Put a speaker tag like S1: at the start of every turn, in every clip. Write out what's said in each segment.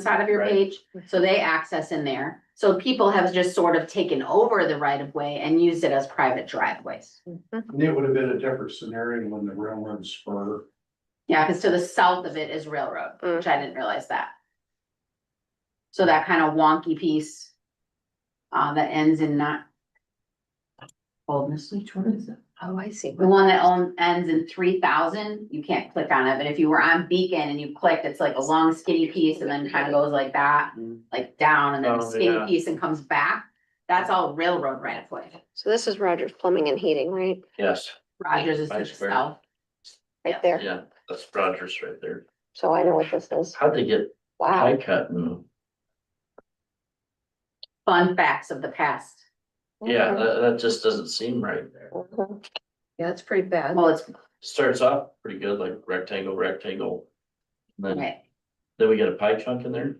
S1: side of your
S2: Right.
S1: page, so they access in there. So people have just sort of taken over the right of way and used it as private driveways.
S2: And it would have been a different scenario when the railroad spur.
S1: Yeah, because to the south of it is railroad, which I didn't realize that. So that kind of wonky piece. Uh, that ends in not. Old Miss Leach, what is it?
S3: Oh, I see.
S1: The one that own, ends in three thousand, you can't click on it, but if you were on Beacon and you clicked, it's like a long skinny piece and then kind of goes like that.
S4: Mm-hmm.
S2: Mm.
S1: Like down and then a
S2: Oh,
S1: skinny
S2: yeah.
S1: piece and comes back, that's all railroad right of way.
S3: So this is Rogers Plumbing and Heating, right?
S4: Yes,
S1: Rogers is to the
S4: Vice versa.
S1: south.
S3: Right there.
S4: yeah, that's Rogers right there.
S3: So I know what this is.
S4: How'd they get
S3: Wow.
S4: high cut and,
S1: Fun facts of the past. Mhm.
S4: yeah, uh, that, that just doesn't seem right there.
S3: Mhm.
S5: Yeah, it's pretty bad.
S1: Well, it's,
S4: Starts off pretty good, like rectangle, rectangle. and Then,
S1: okay,
S4: then we get a pie chunk in there.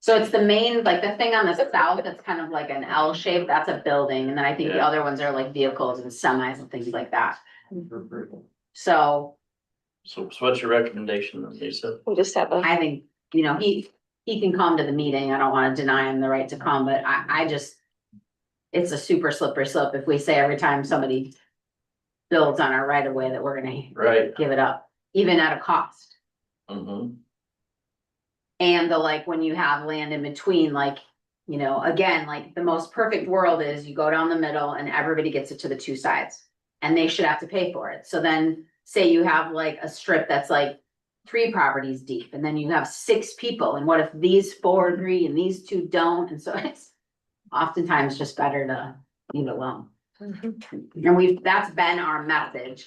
S1: so it's the main, like the thing on the south that's kind of like an L shape, that's a building, and then I think the
S4: Yeah.
S1: other ones are like vehicles and semis and things like that. So
S4: So, so what's your recommendation, then, Lisa?
S3: We just have a,
S1: I think, you know, he, he can come to the meeting. I don't wanna deny him the right to come, but I, I just. It's a super slippery slope if we say every time somebody builds on our right of way that we're gonna
S4: Right,
S1: give it up, even at a cost.
S4: mm-hmm,
S1: And the like, when you have land in between, like, you know, again, like the most perfect world is you go down the middle and everybody gets it to the two sides. And they should have to pay for it. So then, say you have like a strip that's like three properties deep and then you have six people. And what if these four agree and these two don't? And so it's oftentimes just better to leave it alone.
S3: Mhm.
S1: And we've, that's been our message.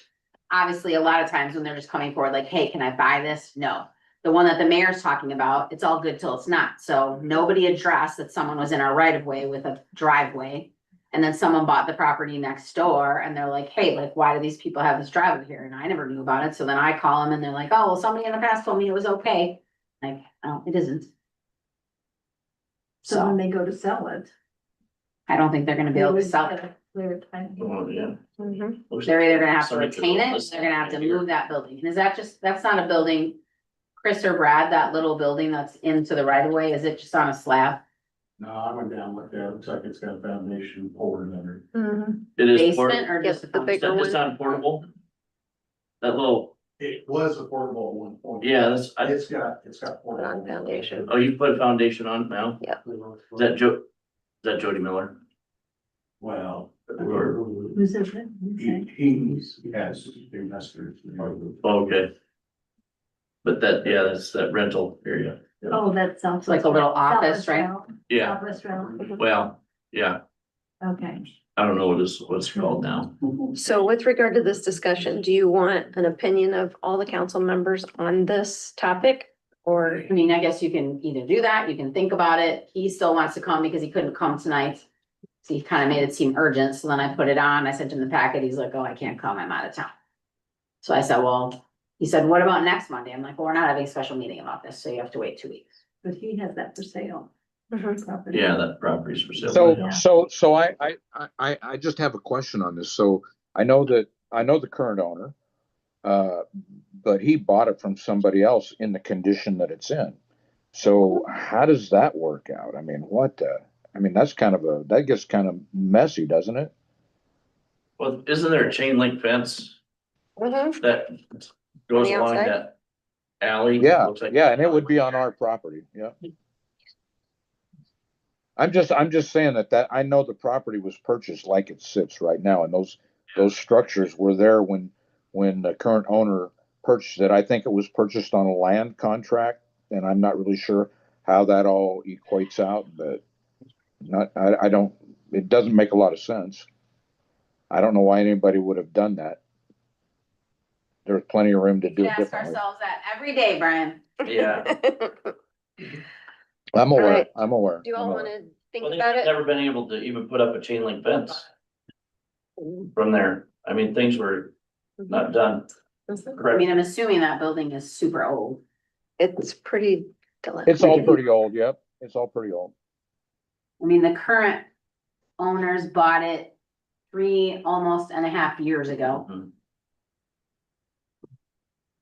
S1: Obviously, a lot of times when they're just coming forward, like, hey, can I buy this? No. The one that the mayor's talking about, it's all good till it's not. So nobody addressed that someone was in our right of way with a driveway. And then someone bought the property next door and they're like, hey, like, why do these people have this driveway here? And I never knew about it. So then I call them and they're like, oh, well, somebody in the past told me it was okay. Like, oh, it isn't.
S5: So when
S1: So
S5: they go to sell it.
S1: I don't think they're gonna be able to sell it.
S5: They're trying to-
S4: well, yeah.
S3: Mhm.
S4: Looks-
S1: They're either gonna have to
S4: Somebody could
S1: retain it,
S4: list
S1: they're gonna have to
S4: right here.
S1: move that building, and is that just, that's not a building? Chris or Brad, that little building that's into the right of way, is it just on a slab?
S2: No, I went down with that. Looks like it's got a foundation poured under.
S5: Mhm.
S4: It is
S1: Basement
S4: portable,
S1: or
S3: Yes,
S1: just?
S3: the big-
S4: it's not portable. That little,
S2: It was a portable at one point.
S4: yeah, that's, I,
S2: It's got, it's got. portable.
S3: On foundation.
S4: oh, you put a foundation on it now? Is that Jo, is that Jody Miller?
S2: Well.
S4: Or-
S5: Who's it with?
S2: He, he's, he has investors.
S4: Oh, Okay. But that, yeah, that's that rental area.
S5: Oh, that sounds.
S1: It's like a little office, right? Mm-hmm.
S4: Yeah,
S5: Office room,
S4: well, yeah,
S5: okay.
S4: I don't know what is, what's it called now.
S3: So with regard to this discussion, do you want an opinion of all the council members on this topic? Or,
S1: I mean, I guess you can either do that, you can think about it, he still wants to come because he couldn't come tonight. So he kinda made it seem urgent, so then I put it on, I sent him the packet, he's like, oh, I can't come, I'm out of town. So I said, well, he said, what about next Monday? I'm like, well, we're not having a special meeting about this, so you have to wait two weeks.
S5: But he has that for sale.
S3: Mhm.
S5: property.
S4: Yeah, that property's for sale.
S6: So,
S5: Yeah.
S6: so, so I, I, I- I, I just have a question on this. So I know that, I know the current owner. Uh, but he bought it from somebody else in the condition that it's in. So how does that work out? I mean, what, uh, I mean, that's kind of a, that gets kind of messy, doesn't it?
S4: Well, isn't there a chain link fence
S3: Mhm.
S4: that goes
S3: On the
S4: along
S3: outside?
S4: that alley?
S6: Yeah,
S4: Looks like- "Oh,
S6: yeah, and it would be on our property, yeah. I'm just, I'm just saying that that, I know the property was purchased like it sits right now, and those, those structures were there when, when the current owner purchased it. I think it was purchased on a land contract, and I'm not really sure how that all equates out, but not, I, I don't, it doesn't make a lot of sense. I don't know why anybody would have done that. There's plenty of room to do
S1: We
S6: it
S1: ask
S6: differently.
S1: ourselves that every day, Brian.
S4: Yeah.
S6: I'm
S3: All
S6: aware,
S3: right.
S6: I'm aware.
S3: Do you
S6: I'm
S3: all
S6: aware.
S3: want to think
S4: Well, they've
S3: about it?
S4: never been able to even put up a chain link fence from there. I mean, things were
S3: Mm-hmm.
S4: not done
S3: Mhm.
S1: I
S4: correctly.
S1: mean, I'm assuming that building is super old.
S3: It's pretty. deli-
S6: It's all pretty old, yep, it's all pretty old.
S1: I mean, the current owners bought it
S4: Hmm.
S1: three, almost and a half years ago.
S4: Mhm.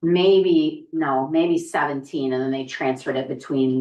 S1: maybe, no, maybe seventeen, and then they transferred it between